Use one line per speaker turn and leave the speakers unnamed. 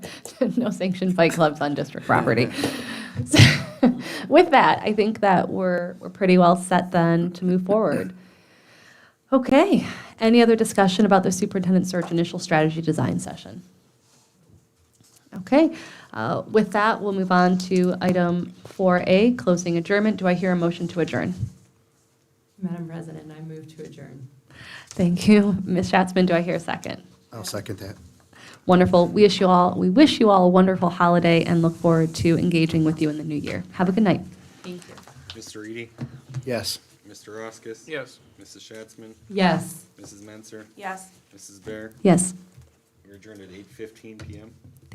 no sanctioned fight clubs on district property. So, With that, I think that we're, we're pretty well set then to move forward. Okay, any other discussion about the superintendent search initial strategy design session? Okay, uh, with that, we'll move on to item 4A, closing adjournment. Do I hear a motion to adjourn?
Madam President, I move to adjourn.
Thank you. Ms. Schatzman, do I hear a second?
I'll second that.
Wonderful. We wish you all, we wish you all a wonderful holiday and look forward to engaging with you in the new year. Have a good night.
Thank you.
Mr. Eady,
Yes.
Mr. Roskis.
Yes.
Mrs. Schatzman,
Yes.
Mrs. Menser,
Yes.
Mrs. Bear.
Yes.
We're adjourned at eight fifteen PM.